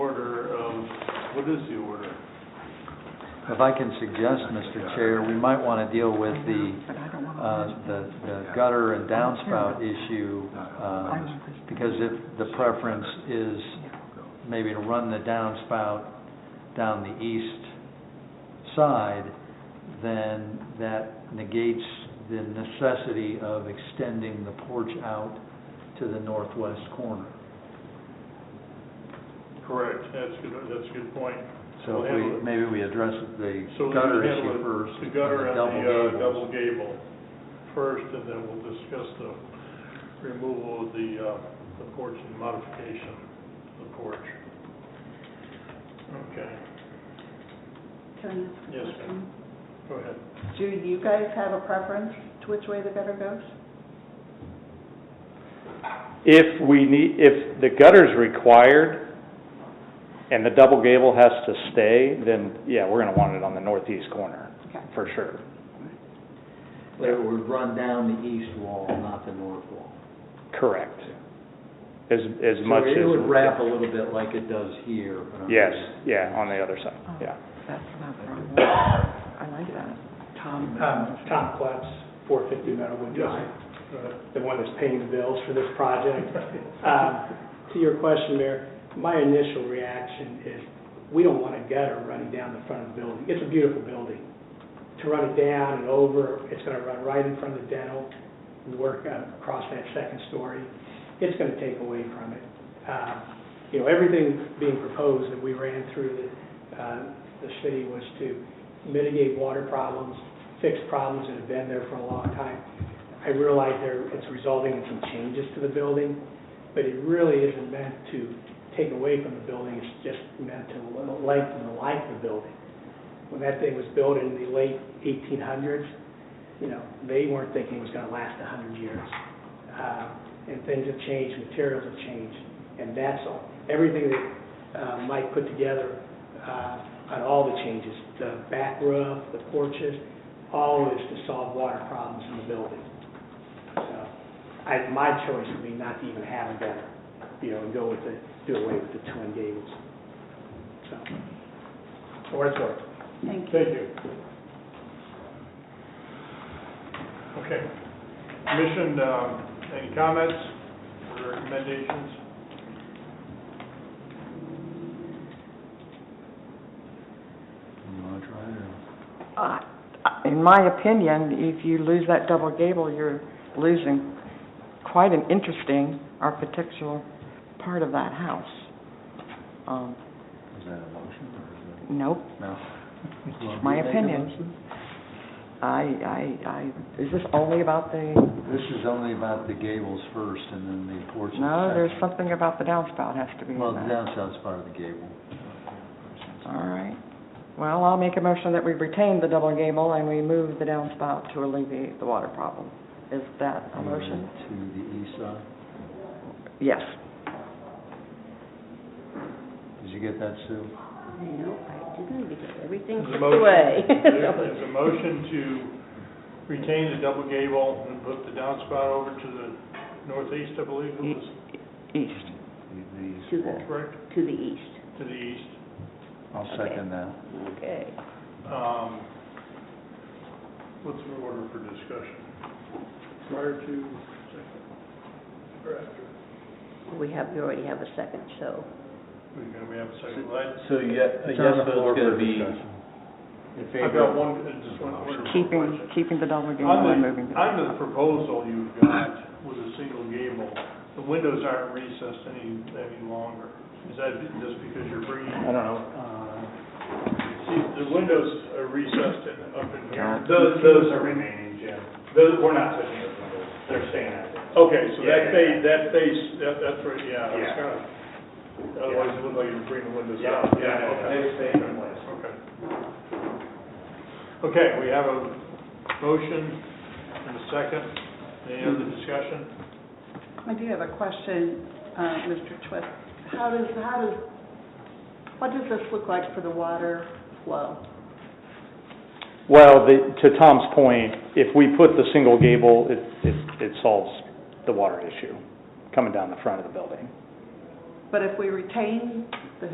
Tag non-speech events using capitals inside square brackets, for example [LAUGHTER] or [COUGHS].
What is the order? If I can suggest, Mr. Chair, we might want to deal with the, But I don't want to uh, lose- the the gutter and downspout issue, I um, want this- because if the preference is maybe to run the downspout down the east side, then that negates the necessity of extending the porch out to the northwest corner. Correct, that's good, that's a good point. So We'll if handle we, it. maybe we address the So we gutter handle issue it- first. The gutter and the double uh, gables. double gable first, and then we'll discuss the removal of the, uh, the porch and modification of the porch. Okay, Can I ask a Yes, ma'am. question? go ahead. Do you guys have a preference to which way the gutter goes? If we need, if the gutter's required and the double gable has to stay, then yeah, we're gonna want it on the northeast corner, Okay. for sure. But it would run down the east wall, not the north wall. Correct. As, as much as. So it would wrap a little bit like it does here. but on the- Yes, yeah, on the other side, Oh, yeah. That's not the wrong [COUGHS] one. I like that. Tom. Um, Tom Klepps, 450 Meadowwood Drive, Go ahead. the one that's paying the bills for this project. [LAUGHS] Um, To your question, Mayor, my initial reaction is, we don't want a gutter running down the front of the building. It's a beautiful building. To run it down and over, it's going to run right in front of the dental, and work uh, across that second story. It's going to take away from it. Uh, You know, everything being proposed that we ran through the, uh, the city was to mitigate water problems, fix problems that have been there for a long time. I realize there, it's resulting in some changes to the building, but it really isn't meant to take away from the building, it's just meant to lengthen the life of the building. When that thing was built in the late eighteen hundreds, you know, they weren't thinking it was gonna last a hundred years. Uh, And things have changed, materials have changed, and that's all. Everything that uh, Mike put together uh, on all the changes, the back roof, the porches, all is to solve water problems in the building. So, I, my choice would be not to even have a gutter, you know, and go with the, do away with the twin gables. So, for what it's worth. Thank you. Thank you. Okay. Commission, um, any comments or recommendations? You wanna try it, or- Uh, In my opinion, if you lose that double gable, you're losing quite an interesting architectural part of that house. Um, Is that a motion or Nope, is that? No. It's my opinion. I, I, I, is this only about the, This is only about the gables first and then the porch. is no, there's second. something about the downspout has to be in Well, the that. downside's part of the gable. All right. Well, I'll make a motion that we retain the double gable and we move the downspout to alleviate the water problem. Is that a motion? To the east side. Yes. Did you get that, Sue? No, I didn't, because everything There's a took motion- away. there- There's a motion to retain the double gable and put the downspout over to the northeast, I believe, it was East. The- To the- the, correct, [LAUGHS] to the east. to the east. I'll second that. Okay. Um, What's the order for discussion? Prior to, second, or after? We have, we already have a second, so. We we have a second. Well, So you, a It's yes on the floor vote's gonna for be discussion. in I- I've favor got of one, uh, just one order for Keeping, question. keeping the double gable On and the, moving the... on the proposal you've got with a single gable, the windows aren't recessed any, any longer. Is that just because you're bringing, I don't know, uh, see, the windows are recessed in, up in here? Those, those are remaining, Jim. Those, we're not touching those windows. They're staying out there. Okay, so Yeah, that yeah, face, yeah. that face, that, that's right, yeah, it's Yeah. kind of, otherwise it looked like you're bringing the windows Yeah, out. yeah, no, no, okay. they're staying in place. Okay. Okay, we have a motion and a second. Any other discussion? I do have a question, uh, Mr. Twist. How does, how does, what does this look like for the water flow? Well, the, to Tom's point, if we put the single gable, it, it, it solves the water issue coming down the front of the building. But if we retain the